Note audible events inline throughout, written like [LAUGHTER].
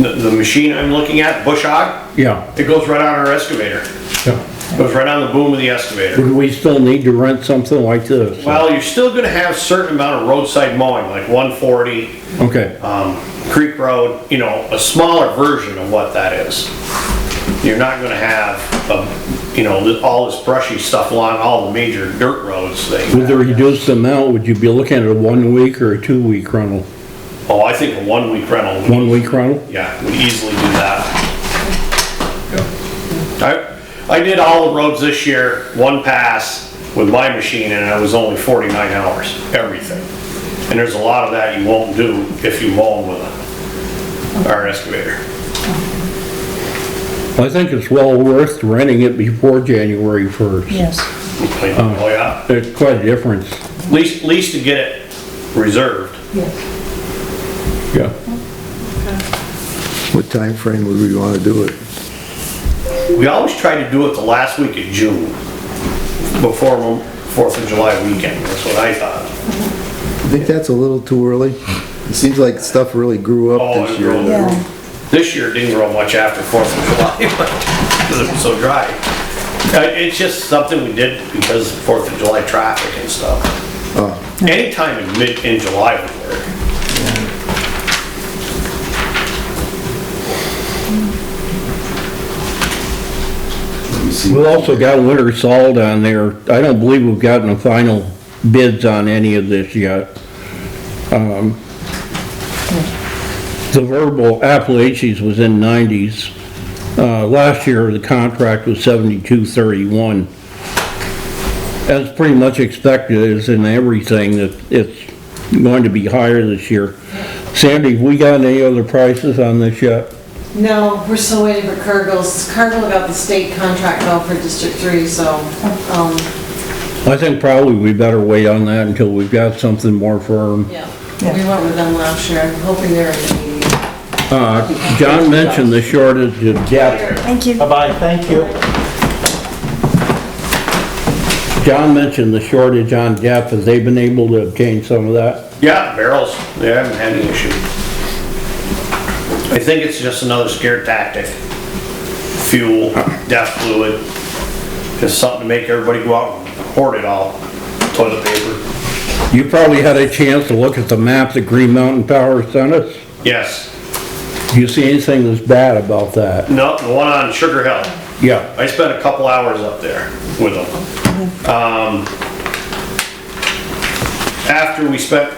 The, the machine I'm looking at, bush hog, Yeah, it goes right on our excavator. yeah. Goes right on the boom of the excavator. Would we still need to rent something like this? Well, you're still gonna have certain amount of roadside mowing, like one forty, Okay, um, Creek Road, you know, a smaller version of what that is. You're not gonna have, um, you know, th- all this brushy stuff along all the major dirt roads with the thing. reduced amount, would you be looking at a one-week or a two-week rental? Oh, I think a one-week rental. would- One-week rental? Yeah, we easily do that. I, I did all the roads this year, one pass with my machine and it was only 49 hours, everything. And there's a lot of that you won't do if you mow 'em with a, our excavator. I think it's well worth renting it before January 1st. Yes, Like, Oh, yeah, There's quite a difference, at least, at least to get it reserved. yes. yeah. What time frame would we want to do it? We always try to do it the last week of June, before Mo- Fourth of July weekend, that's what I thought. I think that's a little too early. It seems like stuff really grew up Oh, this it year. grew. Yeah, This year didn't grow much after Fourth of July, [LAUGHS] because it was so dry. Uh, It's just something we did because of Fourth of July traffic and stuff. Anytime in mid, in July would work. We've also got winter salt on there. I don't believe we've gotten the final bids on any of this yet. Um, The verbal Appalachians was in nineties. Uh, last year, the contract was seventy-two thirty-one. That's pretty much expected, is in everything, that it's going to be higher this year. Sandy, have we gotten any other prices on this yet? No, we're still waiting for Cargill's. Cargill got the state contract though for District Three, so, um, I think probably we better wait on that until we've got something more firm. yeah. We went with them last year, I'm hoping they're in the meeting. Uh, John mentioned the shortage of depth. thank you. Bye-bye, thank you. John mentioned the shortage on depth. Have they been able to obtain some of that? Yeah, barrels, they haven't had any issue. I think it's just another scare tactic. Fuel, death fluid, just something to make everybody go out and hoard it all. Toilet paper. You probably had a chance to look at the map that Green Mountain Power sent us. Yes, Do you see anything that's bad about that? no, the one on Sugar Hill. Yeah. I spent a couple hours up there with them. Um, After we spent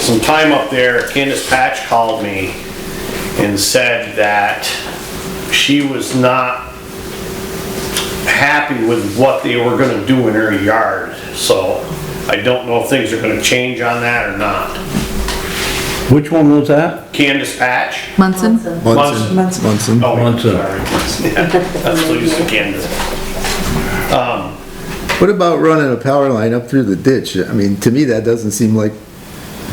some time up there, Candace Patch called me and said that she was not happy with what they were gonna do in her yard, so I don't know if things are gonna change on that or not. Which one was that? Candace Patch? Munson? Munson. Munson. Munson. Oh, I'm Munson. sorry. [LAUGHS] Yeah, That's Lisa Candace. What about running a power line up through the ditch? I mean, to me, that doesn't seem like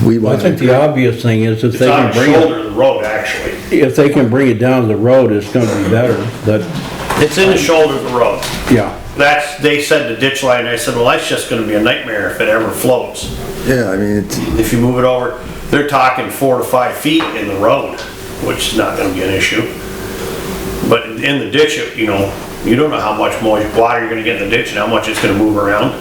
we I want think the to. obvious thing is if It's they on can the bring it, shoulder of the road, actually. if they can bring it down the road, it's gonna be better, but, It's in the shoulder of the road. yeah. That's, they said the ditch line, I said, well, that's just gonna be a nightmare if it ever floats. Yeah, I mean, it's, If you move it over, they're talking four to five feet in the road, which is not gonna be an issue. But in the ditch, you know, you don't know how much more water you're gonna get in the ditch and how much it's gonna move around.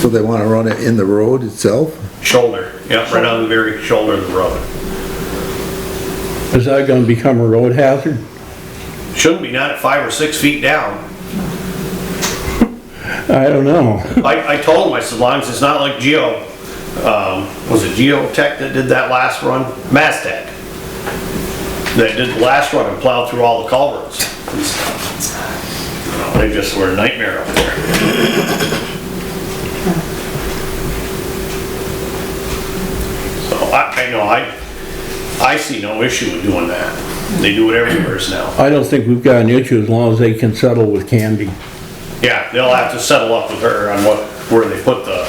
so they want to run it in the road itself? Shoulder, yeah, right on the very shoulder of the road. Is that gonna become a road hazard? Shouldn't be, not at five or six feet down. I don't [LAUGHS] know. I, I told him, I said, long as it's not like Geo, um, was it Geotech that did that last run? Mastech. That did the last run and plowed through all the culverts and stuff. They just were a nightmare up there. So I, I know, I, I see no issue with doing that. They do it everywhere now. I don't think we've got an issue as long as they can settle with Candy. Yeah, they'll have to settle up with her on what, where they put the,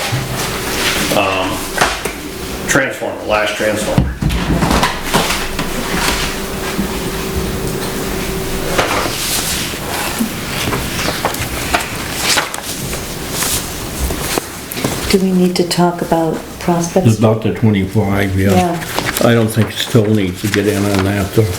um, transformer, last transformer. Do we need to talk about prospects? About the 25, yeah. Yeah. I don't think still needs to get in on that, though.